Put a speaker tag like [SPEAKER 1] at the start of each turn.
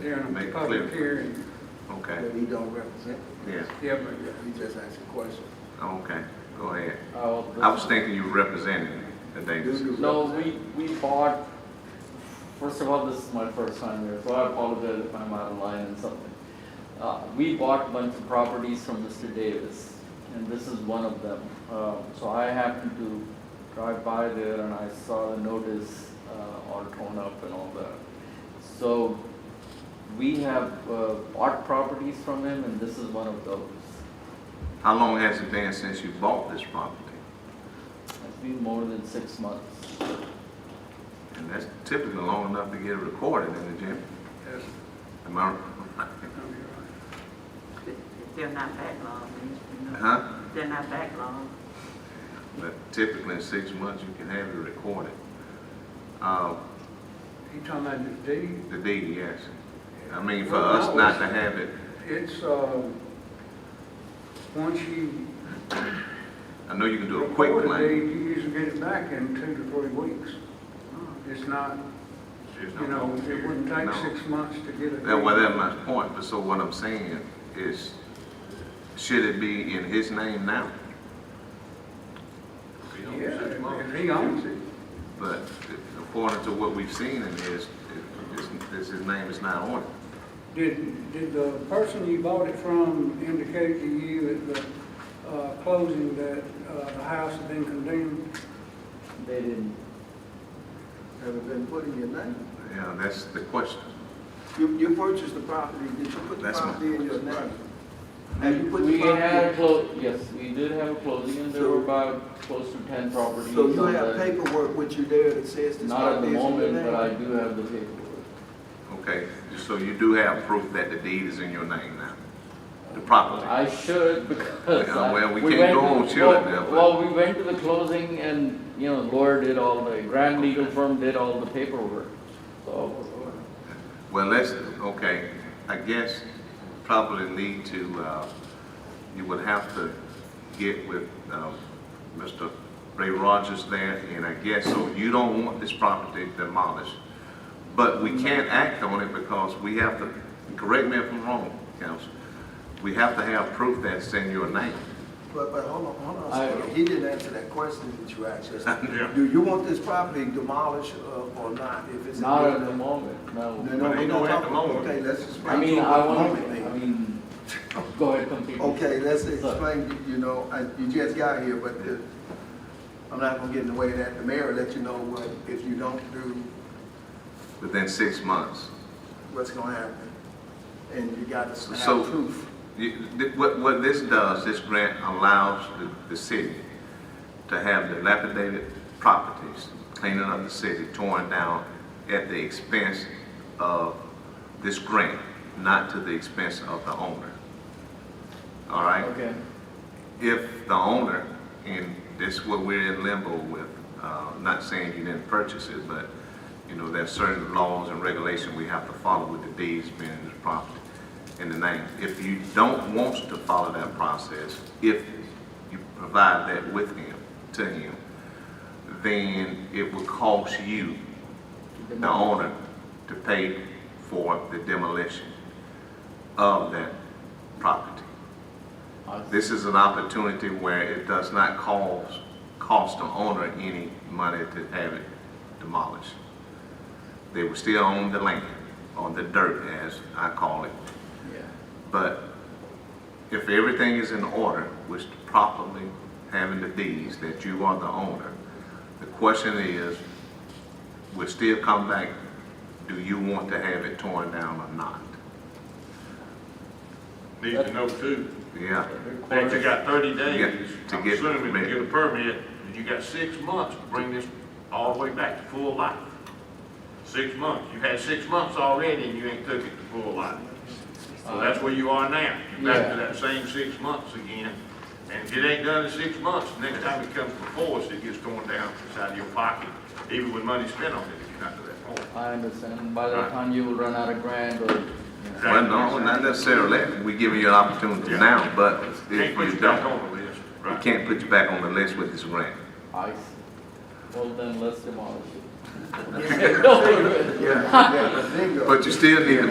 [SPEAKER 1] during
[SPEAKER 2] Make
[SPEAKER 1] a
[SPEAKER 2] it
[SPEAKER 1] public
[SPEAKER 2] clear.
[SPEAKER 1] hearing.
[SPEAKER 2] Okay,
[SPEAKER 3] But he don't represent,
[SPEAKER 2] yeah,
[SPEAKER 1] Yeah, but
[SPEAKER 3] he just asked a question.
[SPEAKER 2] okay, go ahead.
[SPEAKER 4] Uh, the-
[SPEAKER 2] I was thinking you represented the Davis.
[SPEAKER 4] No, we, we bought, first of all, this is my first time here, so I apologize if I'm out of line and something. Uh, we bought a bunch of properties from Mr. Davis, and this is one of them. Uh, so I happened to drive by there and I saw the notice, uh, all torn up and all that. So we have, uh, bought properties from him and this is one of those.
[SPEAKER 2] How long has it been since you bought this property?
[SPEAKER 4] It's been more than six months.
[SPEAKER 2] And that's typically long enough to get it recorded in the gym.
[SPEAKER 1] that's,
[SPEAKER 2] Am I,
[SPEAKER 1] no, you're right.
[SPEAKER 5] They're not backlogged, you know.
[SPEAKER 2] huh?
[SPEAKER 5] They're not backlogged.
[SPEAKER 2] But typically in six months, you can have it recorded. Uh,
[SPEAKER 1] He talking about the deed.
[SPEAKER 2] the deed, yes. I mean, for us not to have it,
[SPEAKER 1] It's, uh, once you
[SPEAKER 2] I know you can do a quick
[SPEAKER 1] record a
[SPEAKER 2] claim.
[SPEAKER 1] deed, you usually get it back in two to three weeks. It's not,
[SPEAKER 2] There's no-
[SPEAKER 1] you know, it wouldn't take
[SPEAKER 2] No.
[SPEAKER 1] six months to get it.
[SPEAKER 2] That, well, that's my point, but so what I'm saying is, should it be in his name now?
[SPEAKER 1] Yeah, if he owns it.
[SPEAKER 2] But according to what we've seen in his, it- it's- it's- his name is not on it.
[SPEAKER 1] Did, did the person you bought it from indicate to you at the uh, closing that uh, the house had been condemned?
[SPEAKER 4] They didn't
[SPEAKER 3] Have it been put in your name?
[SPEAKER 2] You know, that's the question.
[SPEAKER 3] You, you purchased the property, did you put the
[SPEAKER 2] That's my-
[SPEAKER 3] property in your name? Have you put the
[SPEAKER 4] We had a
[SPEAKER 3] property?
[SPEAKER 4] clo, yes, we did have a closing, and there were about close to ten properties.
[SPEAKER 3] So you
[SPEAKER 4] on
[SPEAKER 3] have
[SPEAKER 4] the-
[SPEAKER 3] paperwork with you there that says this
[SPEAKER 4] Not at the
[SPEAKER 3] property is in your
[SPEAKER 4] moment, but I
[SPEAKER 3] name?
[SPEAKER 4] do have the paperwork.
[SPEAKER 2] Okay, so you do have proof that the deed is in your name now, the property.
[SPEAKER 4] I should, because.
[SPEAKER 2] Yeah,
[SPEAKER 4] I-
[SPEAKER 2] well, we can't
[SPEAKER 4] went
[SPEAKER 2] go
[SPEAKER 4] to-
[SPEAKER 2] on chilling
[SPEAKER 4] well-
[SPEAKER 2] there, but-
[SPEAKER 4] Well, we went to the closing, and, you know, lawyer did all the, grand legal firm did all the paperwork, so.
[SPEAKER 2] Well, let's, okay, I guess probably need to, uh, you would have to get with, um, Mr. Ray Rogers there, and I guess, so you don't want this property demolished. But we can't act on it because we have to, correct me if I'm wrong, counsel, we have to have proof that's in your name.
[SPEAKER 3] But, but hold on, hold on,
[SPEAKER 4] I-
[SPEAKER 3] a second. he didn't answer that question that you asked
[SPEAKER 2] Yeah.
[SPEAKER 3] us. Do you want this property demolished uh, or not? If it's in
[SPEAKER 4] Not
[SPEAKER 3] your
[SPEAKER 4] at the
[SPEAKER 3] name?
[SPEAKER 4] moment,
[SPEAKER 3] No,
[SPEAKER 4] no.
[SPEAKER 3] no,
[SPEAKER 2] But
[SPEAKER 3] we're
[SPEAKER 2] ain't
[SPEAKER 3] not
[SPEAKER 2] no at the
[SPEAKER 3] talking,
[SPEAKER 2] moment.
[SPEAKER 3] okay, let's explain.
[SPEAKER 4] I mean,
[SPEAKER 3] to
[SPEAKER 4] I
[SPEAKER 3] what the
[SPEAKER 4] want,
[SPEAKER 3] moment means.
[SPEAKER 4] I mean, go ahead, complete.
[SPEAKER 3] Okay, let's explain, you know, I, you just got here, but the, I'm not gonna get in the way of that. The mayor let you know what, if you don't do,
[SPEAKER 2] Within six months.
[SPEAKER 3] what's gonna happen. And you got to
[SPEAKER 2] So-
[SPEAKER 3] have proof.
[SPEAKER 2] You- th- What, what this does, this grant allows the, the city to have dilapidated properties, cleaning up the city, torn down at the expense of this grant, not to the expense of the owner. All right?
[SPEAKER 4] Okay,
[SPEAKER 2] if the owner, and this is what we're in limbo with, uh, not saying you didn't purchase it, but, you know, there's certain laws and regulations we have to follow with the deeds being in the property in the name. If you don't want to follow that process, if you provide that with him, to him, then it will cost you, the owner, to pay for the demolition of that property.
[SPEAKER 4] I-
[SPEAKER 2] This is an opportunity where it does not cause, cost the owner any money to have it demolished. They will still own the land, or the dirt as I call it.
[SPEAKER 4] yeah.
[SPEAKER 2] But if everything is in order, which properly having the deeds that you are the owner, the question is, will still come back, do you want to have it torn down or not?
[SPEAKER 6] Need to know too,
[SPEAKER 2] Yeah.
[SPEAKER 6] that you got thirty
[SPEAKER 2] Yeah,
[SPEAKER 6] days,
[SPEAKER 2] to
[SPEAKER 6] I'm
[SPEAKER 2] get
[SPEAKER 6] assuming
[SPEAKER 2] permit.
[SPEAKER 6] to get a permit, and you got six months to bring this all the way back to full life. Six months, you had six months already and you ain't took it to full life. So that's where you are now, you're back
[SPEAKER 4] Yeah.
[SPEAKER 6] to that same six months again. And if it ain't done in six months, next time it comes before us, it gets torn down out of your pocket, even with money spent on it, if you're not to that point.
[SPEAKER 4] I understand, by the
[SPEAKER 6] Right.
[SPEAKER 4] time you will run out of grand or, you know.
[SPEAKER 2] Well, no, not necessarily. We're giving you an opportunity
[SPEAKER 6] Yeah.
[SPEAKER 2] now, but
[SPEAKER 6] Can't
[SPEAKER 2] if
[SPEAKER 6] put
[SPEAKER 2] you
[SPEAKER 6] you back
[SPEAKER 2] don't,
[SPEAKER 6] on the list,
[SPEAKER 2] we
[SPEAKER 6] right?
[SPEAKER 2] can't put you back on the list with this grant.
[SPEAKER 4] I see. Well, then let's demolish it.
[SPEAKER 3] Yeah, yeah, bingo.
[SPEAKER 2] But you still need to